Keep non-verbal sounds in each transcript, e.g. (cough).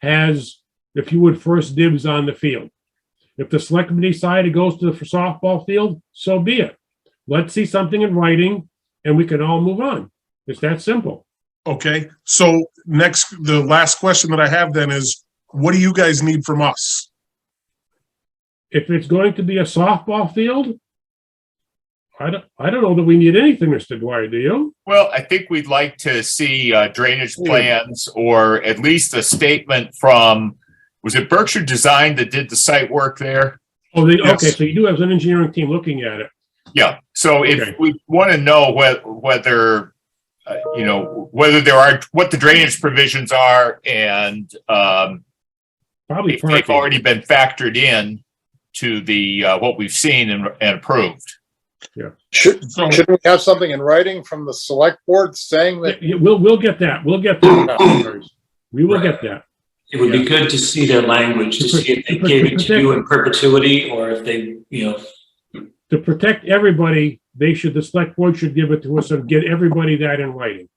has, if you would, first dibs on the field. If the selectmen decide it goes to the softball field, so be it. Let's see something in writing and we can all move on. It's that simple. Okay, so next, the last question that I have then is, what do you guys need from us? If it's going to be a softball field, I don't, I don't know that we need anything, Mr. Dwyer, do you? Well, I think we'd like to see uh, drainage plans or at least a statement from, was it Berkshire Design that did the site work there? Oh, they, Yes. okay, so you do have an engineering team looking at it. Yeah, so Okay. if we want to know whe- whether, uh, you know, whether there are, what the drainage provisions are and um, Probably if they've parking. already been factored in to the, uh, what we've seen and and approved. Should, So, should we have something in writing from the select board saying Yeah, that? yeah, We'll, we'll get that. We'll get that. (clears throat) We will get that. It would be good to see their language, to see if they gave it to you in perpetuity or if they, you know, to protect everybody, they should, the select board should give it to us and get everybody that in writing.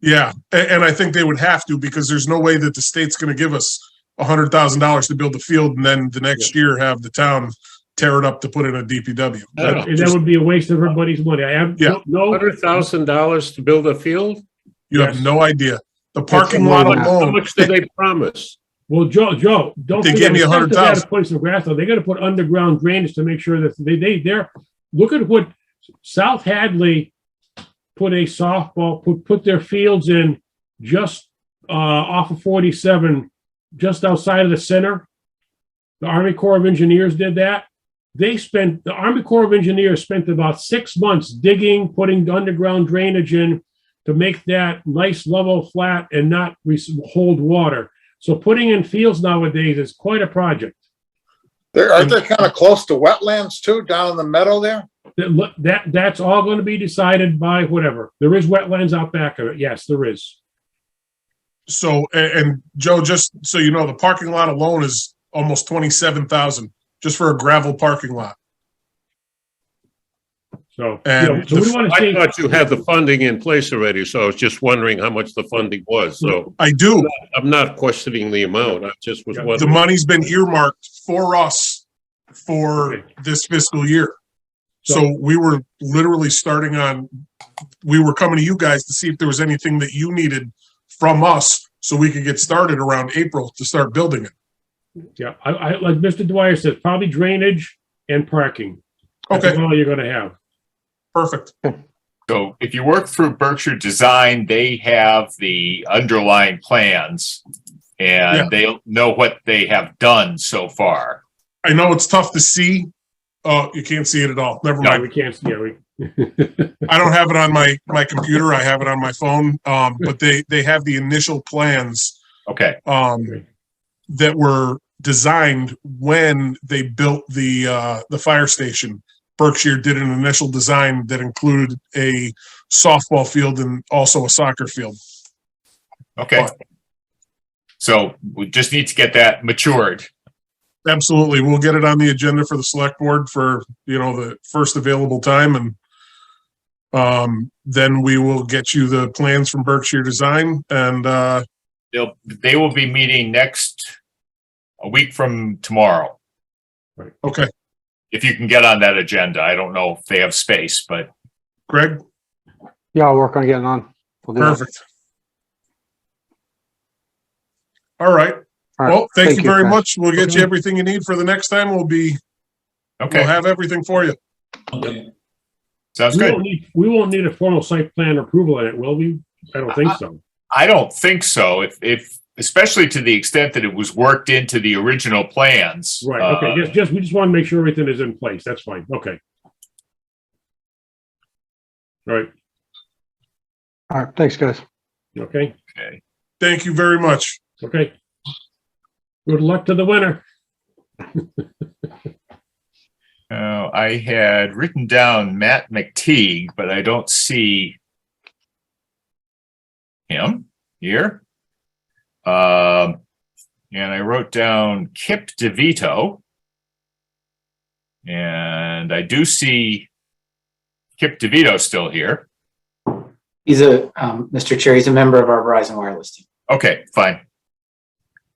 yeah, a- and, I think they would have to because there's no way that the state's gonna give us a hundred thousand dollars to build the field and then the next year have the town tear it up to put in a DPW. No, no. And that would be a waste of everybody's money. I have, Yeah. no, Hundred thousand dollars to build a field? You have no idea. The parking lot unbelievable. How alone, much do they promise? well, Joe, Joe, don't. They forget, gave me it's not that they gotta $100,000. Put some grass on, they gotta put underground drainage to make sure that they, they, they're, look at what South Hadley put a softball, put, put their fields in just, uh, off of forty-seven, just outside of the center. The Army Corps of Engineers did that. They spent, the Army Corps of Engineers spent about six months digging, putting underground drainage in to make that nice level flat and not re- hold water. So putting in fields nowadays is quite a project. They're, aren't they kind of close to wetlands too, down in the meadow there? That, look- that, that's all going to be decided by whatever. There is wetlands out back of it. Yes, there is. so, a- and, Joe, just so you know, the parking lot alone is almost twenty-seven thousand just for a gravel parking lot. So, you And know, so we the- want to I see, thought you had the funding in place already, so I was just wondering how much the funding was, so I do. I'm not questioning the amount, I just was Yeah. The wondering. money's been earmarked for us for Okay. this fiscal year. So- So we were literally starting on, we were coming to you guys to see if there was anything that you needed from us so we could get started around April to start building it. yeah, I, I, like Mr. Dwyer says, probably drainage and parking. That's Okay, all you're going to have. perfect. So if you work through Berkshire Design, they have the underlying plans Yeah. and they know what they have done so far. I know it's tough to see. Oh, you can't see it at all. Never No, mind. we can't, yeah, we, I don't have it on my, my computer. I have it on my phone. Um, but they, they have the initial plans Okay, um, Right. that were designed when they built the, uh, the fire station. Berkshire did an initial design that included a softball field and also a soccer field. okay. So we just need to get that matured. Absolutely. We'll get it on the agenda for the select board for, you know, the first available time and um, then we will get you the plans from Berkshire Design and, uh, They'll, they will be meeting next, a week from tomorrow. okay, If you can get on that agenda, I don't know if they have space, but Greg, Yeah, I'll work on getting on. We'll do that. perfect. All right. All right. Well, thank you very guys. much. We'll get you Okay. everything you need for the next time. We'll be, we'll okay, have everything for you. okay. sounds we good. won't need, we won't need a formal site plan approval on it, will we? I don't think so. I don't think so. If, if, especially to the extent that it was worked into the original plans. Right, uh, okay, just, just, we just want to make sure everything is in place. That's fine, okay. All Right, All right, thanks, guys. okay, Thank you very much. okay. Good luck to the winner. Uh, I had written down Matt McTeague, but I don't see him here. Um, and I wrote down Kip DeVito. And I do see Kip DeVito still here. He's a, um, Mr. Chair, he's a member of our Verizon Wireless team. Okay, fine.